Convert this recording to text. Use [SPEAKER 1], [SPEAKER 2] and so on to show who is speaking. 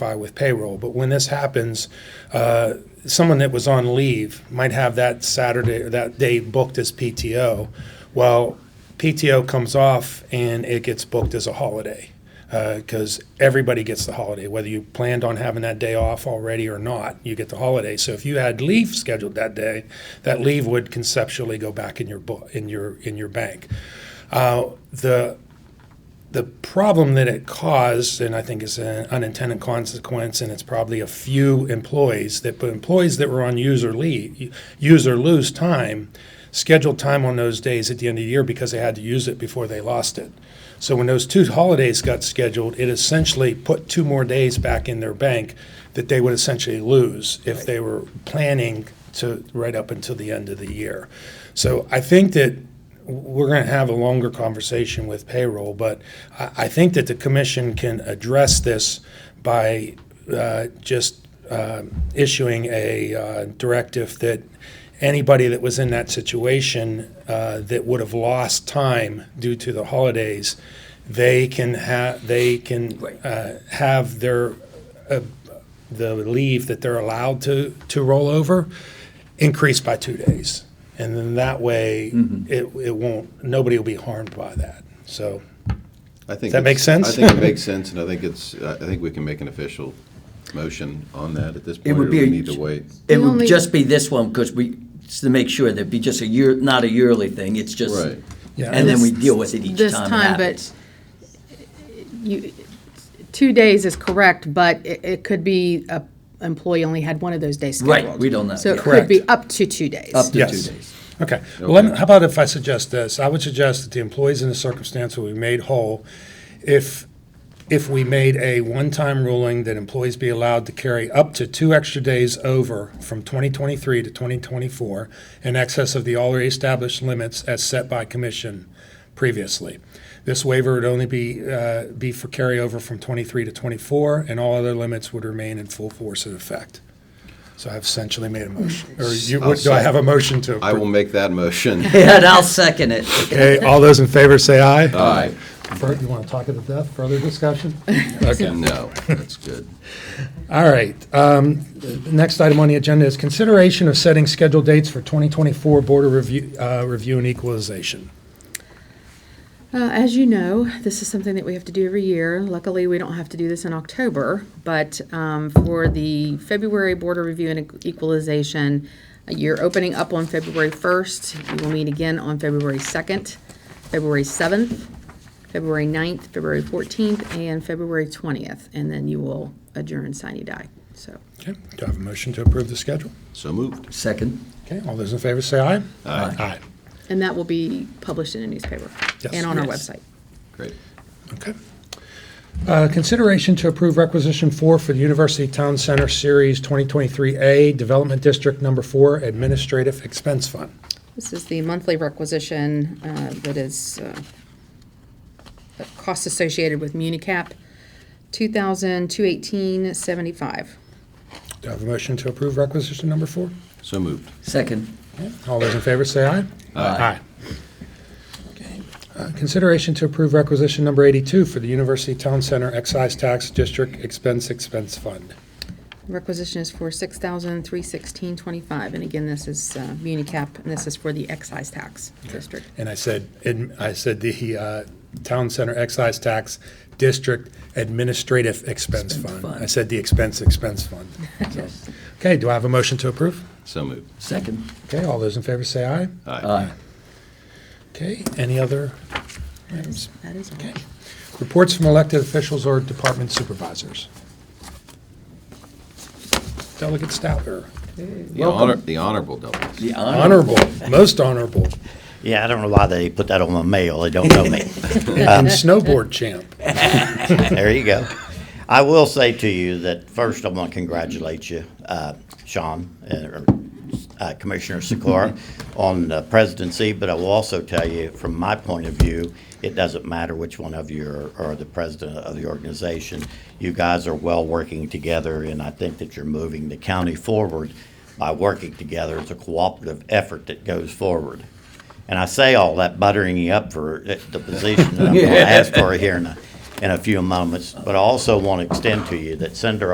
[SPEAKER 1] by with payroll. But when this happens, uh, someone that was on leave might have that Saturday, that day booked as PTO. Well, PTO comes off and it gets booked as a holiday because everybody gets the holiday, whether you planned on having that day off already or not, you get the holiday. So if you had leave scheduled that day, that leave would conceptually go back in your book, in your in your bank. Uh, the the problem that it caused, and I think is an unintended consequence, and it's probably a few employees that, but employees that were on user leave, use or lose time, scheduled time on those days at the end of the year because they had to use it before they lost it. So when those two holidays got scheduled, it essentially put two more days back in their bank that they would essentially lose if they were planning to right up until the end of the year. So I think that we're going to have a longer conversation with payroll, but I, I think that the commission can address this by uh, just uh, issuing a uh, directive that anybody that was in that situation uh, that would have lost time due to the holidays, they can have they can
[SPEAKER 2] Right.
[SPEAKER 1] uh, have their uh, the leave that they're allowed to to roll over increased by two days. And then that way, it, it won't, nobody will be harmed by that. So,
[SPEAKER 3] I think
[SPEAKER 1] Does that make
[SPEAKER 3] it's-
[SPEAKER 1] sense?
[SPEAKER 3] I think it makes sense, and I think it's, I I think we can make an official motion on that at this point, or
[SPEAKER 2] would be
[SPEAKER 3] we
[SPEAKER 2] a-
[SPEAKER 3] need to wait.
[SPEAKER 2] It
[SPEAKER 4] The
[SPEAKER 2] would
[SPEAKER 4] only-
[SPEAKER 2] just be this one, because we, just to make sure, that'd be just a year, not a yearly thing, it's just,
[SPEAKER 3] Right.
[SPEAKER 1] Yeah.
[SPEAKER 2] and then we deal with it each time
[SPEAKER 4] This
[SPEAKER 2] it
[SPEAKER 4] time, but
[SPEAKER 2] happens.
[SPEAKER 4] You, two days is correct, but it, it could be a employee only had one of those days scheduled.
[SPEAKER 2] Right, we don't know,
[SPEAKER 4] So it
[SPEAKER 2] yeah.
[SPEAKER 4] could be
[SPEAKER 1] Correct.
[SPEAKER 4] up to two days.
[SPEAKER 2] Up to two
[SPEAKER 1] Yes.
[SPEAKER 2] days.
[SPEAKER 1] okay. Well, let me-
[SPEAKER 3] Okay.
[SPEAKER 1] how about if I suggest this? I would suggest that the employees in the circumstance will be made whole if, if we made a one-time ruling that employees be allowed to carry up to two extra days over from 2023 to 2024 in excess of the already established limits as set by commission previously. This waiver would only be, uh, be for carryover from 23 to 24, and all other limits would remain in full force and effect. So I've essentially made a motion, or you,
[SPEAKER 3] I'll
[SPEAKER 1] do I have a motion to?
[SPEAKER 3] I will make that motion.
[SPEAKER 2] And I'll second it.
[SPEAKER 1] Okay, all those in favor say aye.
[SPEAKER 3] Aye.
[SPEAKER 1] Bert, you want to talk it to death, further discussion?
[SPEAKER 3] No, that's good.
[SPEAKER 1] All right. um, the Next item on the agenda is consideration of setting scheduled dates for 2024 Board of Review, uh, Review and Equalization.
[SPEAKER 4] Uh, as you know, this is something that we have to do every year. Luckily, we don't have to do this in October, but um, for the February Board of Review and Equalization, uh, you're opening up on February 1st. You will meet again on February 2nd, February 7th, February 9th, February 14th, and February 20th, and then you will adjourn, sign, you die. So,
[SPEAKER 1] Okay, do I have a motion to approve the schedule?
[SPEAKER 3] So moved.
[SPEAKER 2] Second,
[SPEAKER 1] Okay, all those in favor say aye.
[SPEAKER 3] Aye.
[SPEAKER 1] Aye.
[SPEAKER 4] and that will be published in a newspaper
[SPEAKER 1] Yes.
[SPEAKER 4] and on our
[SPEAKER 2] Yes.
[SPEAKER 4] website.
[SPEAKER 3] Great.
[SPEAKER 1] Okay. Uh, Consideration to approve requisition four for the University Town Center Series 2023A Development District Number Four Administrative Expense Fund.
[SPEAKER 4] This is the monthly requisition uh, that is uh, the cost associated with MuniCap, 2,218.75.
[SPEAKER 1] Do I have a motion to approve requisition number four?
[SPEAKER 3] So moved.
[SPEAKER 2] second,
[SPEAKER 1] All those in favor say aye. Aye. Uh, Consideration to approve requisition number 82 for the University Town Center Excise Tax District Expense Expense Fund.
[SPEAKER 4] Requisition is for 6,316.25, and again, this is uh, MuniCap, and this is for the excise tax district.
[SPEAKER 1] And I said, and I said the uh, Town Center Excise Tax District Administrative Expense Fund.
[SPEAKER 2] Fund.
[SPEAKER 1] I said the Expense Expense Fund.
[SPEAKER 2] yes,
[SPEAKER 1] Okay, do I have a motion to approve?
[SPEAKER 3] So moved.
[SPEAKER 2] second. Uh,
[SPEAKER 1] Okay, all those in favor say aye.
[SPEAKER 3] Aye.
[SPEAKER 2] Aye.
[SPEAKER 1] Okay, any other items?
[SPEAKER 4] That is all.
[SPEAKER 1] Okay. Reports from elected officials or department supervisors. Delegate Stouter,
[SPEAKER 3] The honor, the honorable doubles.
[SPEAKER 2] The honor,
[SPEAKER 1] honorable, most honorable,
[SPEAKER 5] Yeah, I don't know why they put that on my mail. They don't know me.
[SPEAKER 1] and snowboard champ.
[SPEAKER 5] there you go. I will say to you that first, I want to congratulate you, uh, Sean, uh, uh, Commissioner Sikora, on the presidency. But I will also tell you, from my point of view, it doesn't matter which one of you are, are the president of the organization. You guys are well working together, and I think that you're moving the county forward by working together. It's a cooperative effort that goes forward. And I say all that buttering you up for the the position that I'm going to ask for here in a, in a few moments. But I also want to extend to you that Senator